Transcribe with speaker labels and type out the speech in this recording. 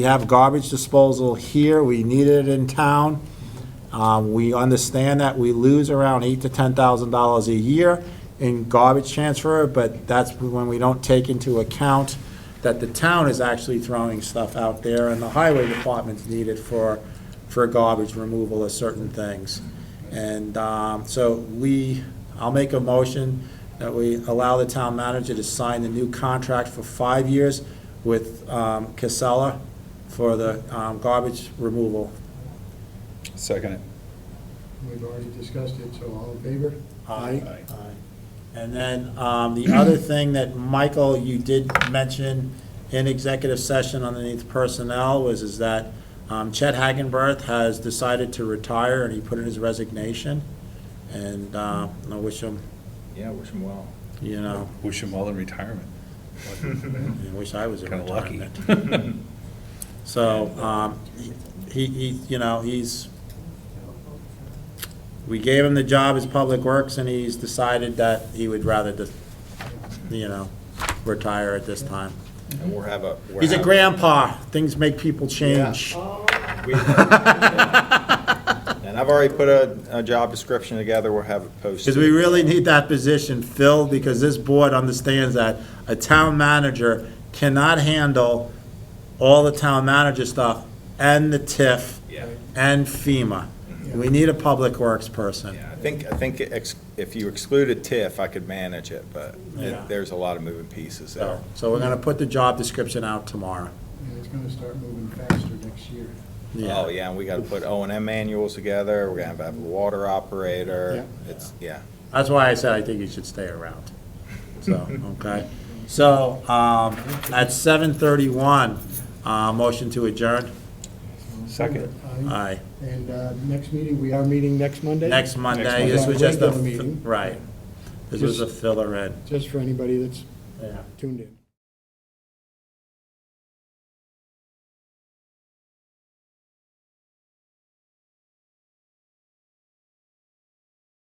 Speaker 1: We have garbage disposal here, we need it in town. Um, We understand that we lose around eight to ten thousand dollars a year in garbage transfer, but that's when we don't take into account that the town is actually throwing stuff out there, and the highway department's needed for, for garbage removal of certain things. And um, so we, I'll make a motion that we allow the town manager to sign the new contract for five years with um, Casella for the um, garbage removal.
Speaker 2: Second it.
Speaker 3: We've already discussed it, so all in favor?
Speaker 1: Aye.
Speaker 2: Aye.
Speaker 1: And then um, the other thing that, Michael, you did mention in executive session underneath personnel was is that um, Chet Hagenberth has decided to retire, and he put in his resignation. And uh, I wish him,
Speaker 4: Yeah, wish him well.
Speaker 1: you know,
Speaker 2: Wish him well in retirement.
Speaker 1: I wish I was in
Speaker 2: Kinda lucky.
Speaker 1: retirement. So, um, he, he, you know, he's, we gave him the job as Public Works, and he's decided that he would rather just, you know, retire at this time.
Speaker 4: And we'll have a. we'll
Speaker 1: He's a
Speaker 4: have-
Speaker 1: grandpa, things make people change.
Speaker 4: we- And I've already put a, a job description together, we'll have it posted.
Speaker 1: Because we really need that position filled, because this board understands that a town manager cannot handle all the town manager stuff and the TIF
Speaker 4: Yeah.
Speaker 1: and FEMA. We need a public works person.
Speaker 4: Yeah, I think, I think ex- if you excluded TIF, I could manage it, but
Speaker 1: Yeah. Oh,
Speaker 4: it- there's a lot of moving pieces there.
Speaker 1: So, so we're gonna put the job description out tomorrow.
Speaker 3: Yeah, it's gonna start moving faster next year.
Speaker 4: Oh, yeah, and we gotta put O and M manuals together, we're gonna have to have a water operator, it's, yeah.
Speaker 1: That's why I said I think you should stay around. So, okay. So, um, at seven thirty-one, uh, motion to adjourn?
Speaker 2: Second.
Speaker 3: Aye.
Speaker 1: Aye.
Speaker 3: And uh, next meeting, we are meeting next Monday?
Speaker 1: Next Monday, this was
Speaker 3: Monday.
Speaker 1: just a,
Speaker 3: Regular meeting.
Speaker 1: right. This was a filler in.
Speaker 3: Just for anybody that's
Speaker 1: Yeah.
Speaker 3: tuned in.